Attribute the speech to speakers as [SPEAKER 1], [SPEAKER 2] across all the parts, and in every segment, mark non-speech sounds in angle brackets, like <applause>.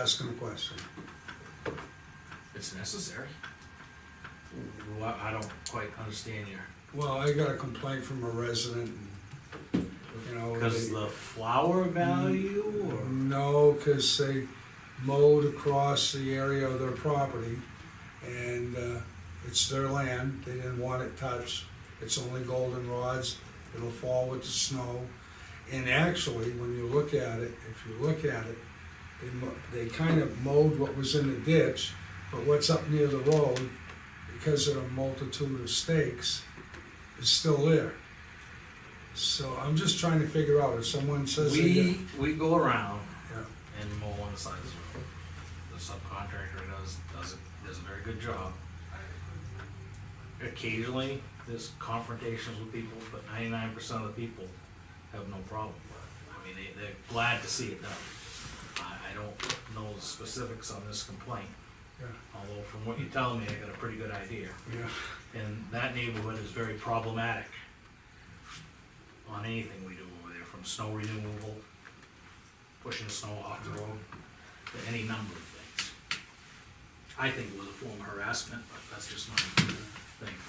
[SPEAKER 1] asking a question.
[SPEAKER 2] It's necessary. Well, I don't quite understand your.
[SPEAKER 1] Well, I got a complaint from a resident, and, you know.
[SPEAKER 2] Because
[SPEAKER 1] they-
[SPEAKER 2] the flower value or?
[SPEAKER 1] No, because they mowed across the area of their property, and uh, it's their land, they didn't want it touched. It's only goldenrods, it'll fall with the snow. And actually, when you look at it, if you look at it, they, mo- they kind of mowed what was in the ditch, but what's up near the road, because of the multitude of stakes, is still there. So I'm just trying to figure out if someone says. they
[SPEAKER 2] We,
[SPEAKER 1] got-
[SPEAKER 2] we go around
[SPEAKER 1] Mm. Yeah.
[SPEAKER 2] and mow on the side of the road. The subcontractor does, does, it- does a very good job. Occasionally, there's confrontations with people, but ninety-nine percent of the people have no problem with it. I mean, they, they're glad to see it done. I, I don't know the specifics on this complaint,
[SPEAKER 1] Yeah.
[SPEAKER 2] although from what you're telling me, I got a pretty good idea.
[SPEAKER 1] Yeah,
[SPEAKER 2] And that neighborhood is very problematic on anything we do over there, from snow removal, pushing snow off the road, to any number of things. I think it was a form of harassment, but that's just my thing.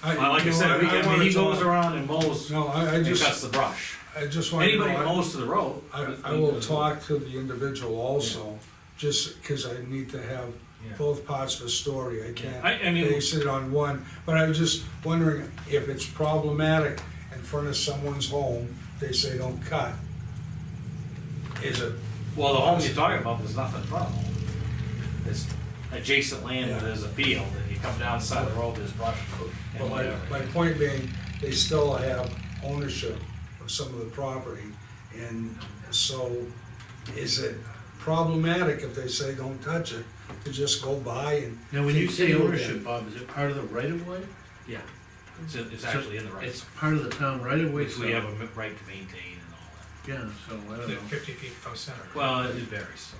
[SPEAKER 1] I-
[SPEAKER 2] Well, Like I
[SPEAKER 1] you know, I-
[SPEAKER 2] said, we-
[SPEAKER 1] I
[SPEAKER 2] I mean,
[SPEAKER 1] wanna
[SPEAKER 2] he goes
[SPEAKER 1] talk-
[SPEAKER 2] around and mows
[SPEAKER 1] no, I, I
[SPEAKER 2] and cuts
[SPEAKER 1] just,
[SPEAKER 2] the brush.
[SPEAKER 1] I just want to
[SPEAKER 2] Anybody that
[SPEAKER 1] know,
[SPEAKER 2] mows to the road.
[SPEAKER 1] I, I will talk to the individual also, just because I need to have
[SPEAKER 2] Yeah.
[SPEAKER 1] both parts of the story, I
[SPEAKER 2] I,
[SPEAKER 1] can't
[SPEAKER 2] I mean,
[SPEAKER 1] base it on one, but I was just wondering if it's problematic in front of someone's home, they say don't cut. Is it,
[SPEAKER 2] well, the home you're talking about, there's nothing from home. It's adjacent land, where
[SPEAKER 1] Yeah.
[SPEAKER 2] there's a field, and you come down the side of the road, there's brush
[SPEAKER 1] but
[SPEAKER 2] and
[SPEAKER 1] my,
[SPEAKER 2] whatever.
[SPEAKER 1] my point being, they still have ownership of some of the property, and so is it problematic if they say don't touch it, to just go by and
[SPEAKER 3] Now, when you say
[SPEAKER 1] Continue
[SPEAKER 3] ownership, Bob, is it part of the right of way?
[SPEAKER 2] Yeah, it's, it's actually in the right,
[SPEAKER 3] It's part of the town right of way,
[SPEAKER 2] which
[SPEAKER 3] so,
[SPEAKER 2] we
[SPEAKER 3] yeah,
[SPEAKER 2] have a mi- right to maintain and all
[SPEAKER 3] so I
[SPEAKER 2] <laughs>
[SPEAKER 3] don't
[SPEAKER 4] Is it
[SPEAKER 3] know.
[SPEAKER 4] fifty feet from center?
[SPEAKER 2] that. Well, it varies,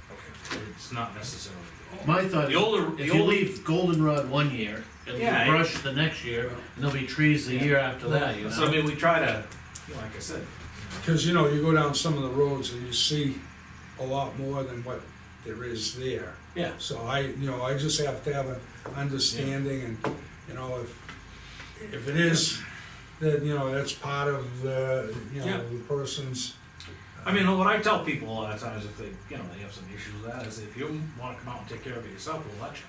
[SPEAKER 4] Okay.
[SPEAKER 2] it's not necessarily.
[SPEAKER 3] My thought
[SPEAKER 2] The older-
[SPEAKER 3] is,
[SPEAKER 2] the
[SPEAKER 3] if you
[SPEAKER 2] older-
[SPEAKER 3] leave goldenrod one year, it'll be
[SPEAKER 2] Yeah, it-
[SPEAKER 3] brush the next year, and there'll be trees the year after that, you
[SPEAKER 2] So I
[SPEAKER 3] know?
[SPEAKER 2] mean, we try to, like I said,
[SPEAKER 1] Because, you know, you go down some of the roads and you see a lot more than what there is there.
[SPEAKER 2] yeah,
[SPEAKER 1] So I, you know, I just have to have an understanding and, you know, if, if it is, then, you know, that's part of the, you know, the person's.
[SPEAKER 2] I mean, what I tell people a lot of times if they, you know, they have some issues with that, is if you wanna come out and take care of it yourself, we'll let you.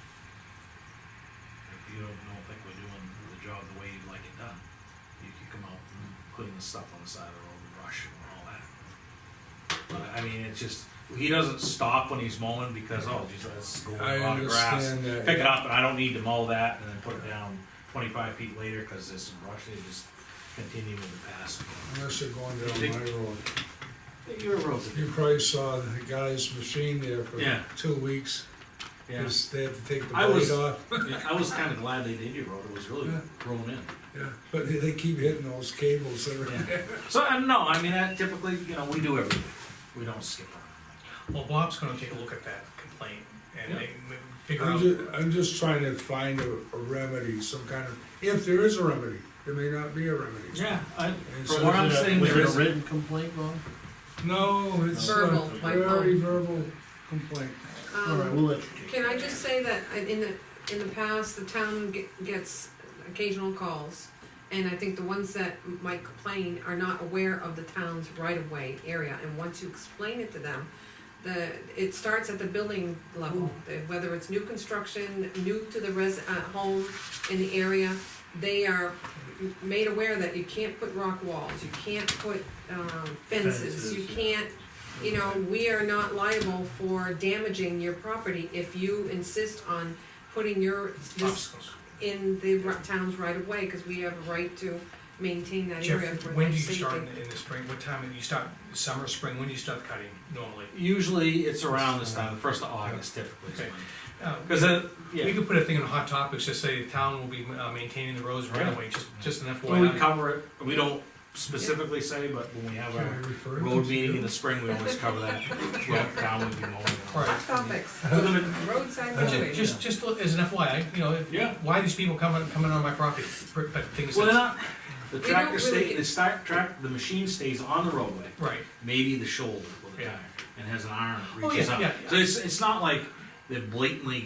[SPEAKER 2] If you don't, don't think we're doing the job the way you'd like it done, you can come out and clean the stuff on the side of the road, and brush and all that. But, I mean, it's just, he doesn't stop when he's mowing because, oh, geez, that's going
[SPEAKER 1] I
[SPEAKER 2] on the grass.
[SPEAKER 1] understand that.
[SPEAKER 2] Pick it up, and I don't need to mow that, and then put it down twenty-five feet later, cause there's some brush, they just continue with the past.
[SPEAKER 1] Unless you're going down my road.
[SPEAKER 2] Your roads are
[SPEAKER 1] You probably saw the guy's machine there for
[SPEAKER 2] Yeah.
[SPEAKER 1] two weeks,
[SPEAKER 2] Yeah.
[SPEAKER 1] because they had to take the
[SPEAKER 2] I was-
[SPEAKER 1] blade off. <laughs>
[SPEAKER 2] Yeah, I was kinda glad they did your road, it was really
[SPEAKER 1] Yeah.
[SPEAKER 2] grown in.
[SPEAKER 1] Yeah, But they- they keep hitting those cables that are.
[SPEAKER 2] <laughs> So, uh, no, I mean, that typically, you know, we do everything, we don't skip around.
[SPEAKER 4] Well, Bob's gonna take a look at that complaint and
[SPEAKER 2] Yeah.
[SPEAKER 4] make- make- figure
[SPEAKER 1] I'm
[SPEAKER 4] out,
[SPEAKER 1] just, I'm just trying to find a, a remedy, some kind of, if there is a remedy, there may not be a remedy.
[SPEAKER 2] Yeah, I,
[SPEAKER 1] And
[SPEAKER 2] from
[SPEAKER 1] so
[SPEAKER 2] where
[SPEAKER 3] Was
[SPEAKER 2] I'm
[SPEAKER 3] it a-
[SPEAKER 2] sitting, there
[SPEAKER 3] Was it
[SPEAKER 2] is,
[SPEAKER 3] a written complaint, Bob?
[SPEAKER 1] No, it's
[SPEAKER 5] Verbal,
[SPEAKER 1] a
[SPEAKER 5] like,
[SPEAKER 1] very verbal complaint.
[SPEAKER 3] All right, we'll
[SPEAKER 5] Um,
[SPEAKER 3] let you take
[SPEAKER 5] Can I
[SPEAKER 3] it.
[SPEAKER 5] just say that I- in the, in the past, the town ge- gets occasional calls, and I think the ones that might complain are not aware of the town's right-of-way area, and once you explain it to them, the, it starts at the building level,
[SPEAKER 3] Mm.
[SPEAKER 5] the- whether it's new construction, new to the res, uh, home in the area, they are m- made aware that you can't put rock walls, you can't put, um, fences,
[SPEAKER 3] Fences,
[SPEAKER 5] you
[SPEAKER 3] yeah.
[SPEAKER 5] can't you know, we are not liable for damaging your property if you insist on putting your, this
[SPEAKER 4] obstacles.
[SPEAKER 5] in the ri- town's right of way, cause we have a right to maintain that
[SPEAKER 4] Jeff,
[SPEAKER 5] area for
[SPEAKER 4] when
[SPEAKER 5] life
[SPEAKER 4] do you start in
[SPEAKER 5] safety.
[SPEAKER 4] the, in the spring? What time, do you start, summer, spring, when do you start cutting normally?
[SPEAKER 2] usually it's around this time, the first of August typically is
[SPEAKER 4] Okay.
[SPEAKER 2] when.
[SPEAKER 4] Uh,
[SPEAKER 2] Cause it,
[SPEAKER 4] We
[SPEAKER 2] Oh, yeah,
[SPEAKER 4] could put a thing on Hot Topics, just say the town will be uh, maintaining the roads right away, just, just an
[SPEAKER 2] when we
[SPEAKER 4] FYI.
[SPEAKER 2] cover it, we don't specifically say, but when we have
[SPEAKER 1] Can I
[SPEAKER 2] our
[SPEAKER 1] refer it
[SPEAKER 2] road
[SPEAKER 1] to
[SPEAKER 2] meeting
[SPEAKER 1] you?
[SPEAKER 2] in the spring, we always cover that, throughout town would be mowing. and all that.
[SPEAKER 4] Right.
[SPEAKER 5] Hot topics, roadside
[SPEAKER 4] But ju-
[SPEAKER 5] mowing.
[SPEAKER 4] Just, just look- as an FYI, you know,
[SPEAKER 2] Yeah.
[SPEAKER 4] why these people coming, coming on my property, but things,
[SPEAKER 2] Well, they're
[SPEAKER 4] that's-
[SPEAKER 2] not, the
[SPEAKER 5] don't
[SPEAKER 2] tractor
[SPEAKER 5] really
[SPEAKER 2] stay,
[SPEAKER 5] get-
[SPEAKER 2] the start, track, the machine stays on the roadway,
[SPEAKER 4] right,
[SPEAKER 2] maybe the shoulder with a
[SPEAKER 4] Yeah.
[SPEAKER 2] tire, and has an iron that
[SPEAKER 4] Oh,
[SPEAKER 2] reaches
[SPEAKER 4] yeah,
[SPEAKER 2] up.
[SPEAKER 4] yeah,
[SPEAKER 2] So
[SPEAKER 4] yeah.
[SPEAKER 2] it's, it's not like that blatantly